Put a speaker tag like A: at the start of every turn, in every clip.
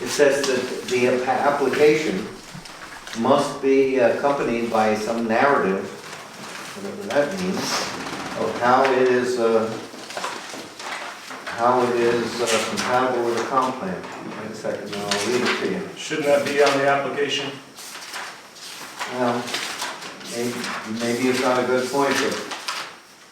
A: It says that the app- application must be accompanied by some narrative, whatever that means, of how it is, uh, how it is uh, compatible with the comp plan. Wait a second, and I'll read it to you.
B: Shouldn't that be on the application?
A: Well, maybe, maybe it's not a good point, but,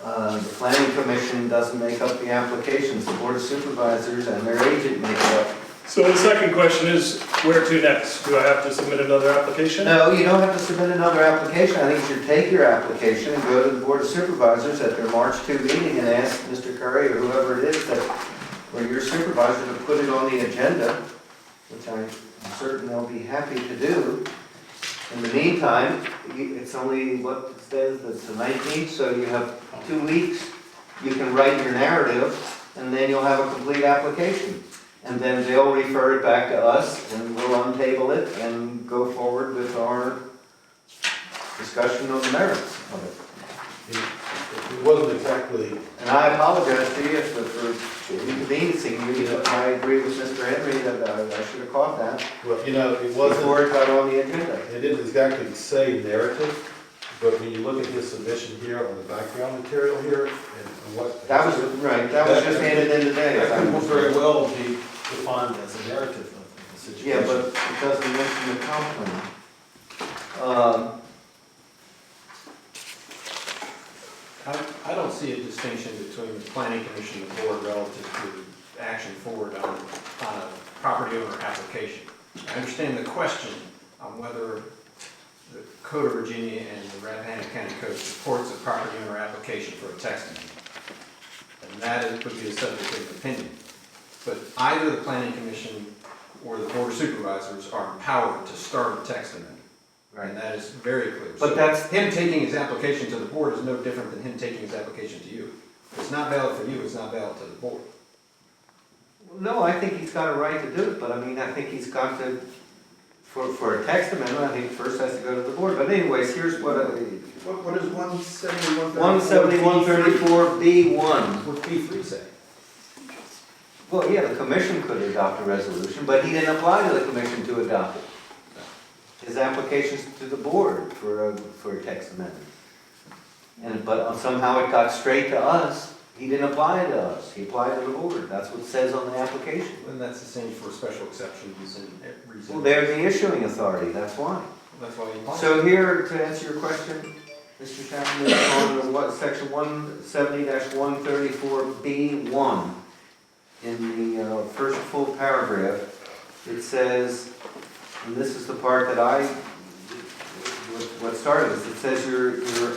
A: uh, the planning commission doesn't make up the applications, the board of supervisors and their agent make it up.
B: So the second question is, where to next? Do I have to submit another
C: Uh.
B: application?
A: No, you don't have to submit another application, I think you should take your application and go to the board of supervisors at their March two meeting and ask Mr. Curry or whoever it is that, or your supervisor to put it on the agenda, which I'm certain they'll be happy to do. In the meantime, you- it's only, what, it says it's the nineteenth, so you have two weeks, you can write your narrative, and then you'll have a complete application. And then they'll refer it back to us, and we'll untable it and go forward with our discussion of the merits of it.
D: It wasn't exactly,
A: And I apologize to you for- for inconveniencing you, but I agree with Mr. Henry that uh, I I should have caught that
D: well, you know, it wasn't,
A: before it got on the agenda.
D: it didn't exactly say narrative, but when you look at his submission here on the background material here and what.
A: That was, right, that was just handed in today.
D: That could very well be defined as a narrative of the
A: Yeah,
D: situation.
A: but it doesn't mention the comp plan. Um,
E: I, I don't see a distinction between the planning commission and the board relative to action forward on, on a uh, property owner application. I understand the question on whether the Code of Virginia and the Rappahannock County Code supports a property owner application for a text amendment. And that is, would be the subject of opinion. But either the planning commission or the board of supervisors are empowered to start a text amendment. And that is very clear.
A: But
E: So
A: that's-
E: Him taking his application to the board is no different than him taking his application to you. If it's not valid for you, it's not valid to the board.
A: No, I think he's got a right to do it, but I mean, I think he's got to, for, for a text amendment, I think first has to go to the board. But anyways, here's what,
E: What, what does one seventy-one
A: one seventy-one thirty-four B one.
E: What P three say?
A: Well, yeah, the commission could adopt a resolution, but he didn't apply to the commission to adopt it. His application's to the board for, a- for a text amendment. And, but somehow it got straight to us, he didn't apply to us, he applied to the board, that's what it says on the application.
E: And that's the same for special exceptions and reasons.
A: Well, they're the issuing authority, that's why.
E: That's why you. want-
A: So here, to answer your question, Mr. Chapman, is on what, section one seventy one thirty-four B one, in the uh, first full paragraph, it says, and this is the part that I, what- what started this, it says your, your,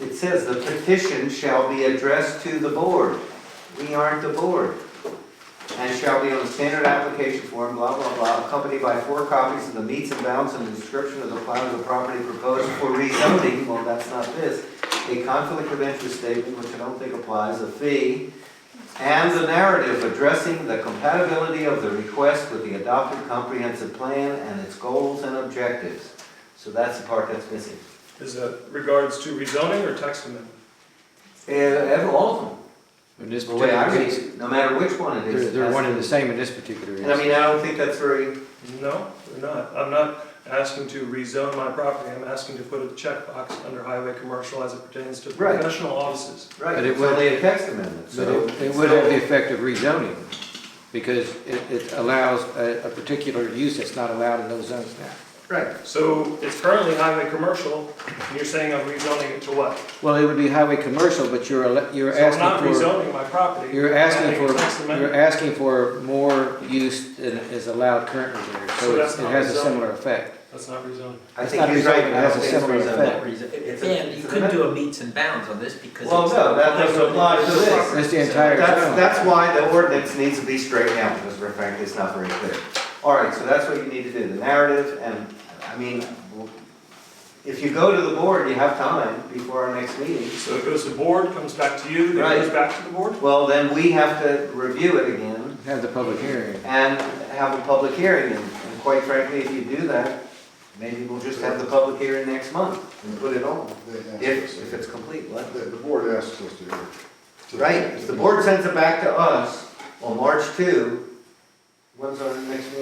A: it says the petition shall be addressed to the board. We aren't the board. And shall be on the standard application form, blah, blah, blah, accompanied by four copies of the meets and bounds and description of the plan of the property proposed for rezoning, well, that's not this, a conflict of interest statement, which I don't think applies, a fee, and the narrative addressing the compatibility of the request with the adopted comprehensive plan and its goals and objectives. So that's the part that's missing.
B: Is that regards to rezoning or text amendment?
A: Eh, ev- all of them,
C: In this
A: the way I
C: particular
A: read
C: case,
A: it, no matter which one it
C: they're,
A: is.
C: they're one and the
A: that's-
C: same in this particular
A: And I
C: instance.
A: mean, I don't think that's very,
B: No, they're not. I'm not asking to rezone my property. I'm asking to put a checkbox under highway commercial as it pertains to
A: Right.
B: professional offices.
A: right,
C: But it
A: it's
C: would-
A: only a text amendment,
C: But
A: so.
C: it, it would have the effect of rezoning, because it, it allows a, a particular use that's not allowed in those zones now.
A: Right,
B: So it's currently highway commercial, and you're saying I'm rezoning it to what?
C: Well, it would be highway commercial, but you're, al- you're
B: So I'm not
C: asking for,
B: rezoning my property.
C: you're
B: I'm
C: asking
B: adding a text
C: for, you're
B: amendment.
C: asking for more use than is allowed currently there.
B: So
C: So it's-
B: that's
C: it
B: not
C: has a
B: rezoning.
C: similar effect.
B: That's not rezoning.
A: I
C: It's
A: think
C: not
A: he's right,
C: rezoning,
A: but
C: it
A: I
C: has
A: don't
C: a
A: think it's
C: similar
A: rezoning.
C: effect.
A: It's a-
F: Dan,
A: it's
F: you
A: an
F: could
A: amendment.
F: do a meets and bounds on this because.
A: Well,
F: it's-
A: no, that doesn't apply to this.
C: It's the entire
A: That's,
C: zone.
A: that's why the ordinance needs to be straightened out, because we're frankly, it's not very clear. All right, so that's what you need to do, the narrative, and, I mean, if you go to the board, you have time before our next meeting.
B: So it goes to board, comes back to you, then goes
A: Right.
B: back to the board?
A: Well, then we have to review it again
C: Have the public hearing.
A: and have a public hearing, and and quite frankly, if you do that, maybe we'll just have the public hearing next month and put it on, if, if it's complete, what?
G: The, the board asks us to do it.
A: Right, if the board sends it back to us on March two, when's our next meeting?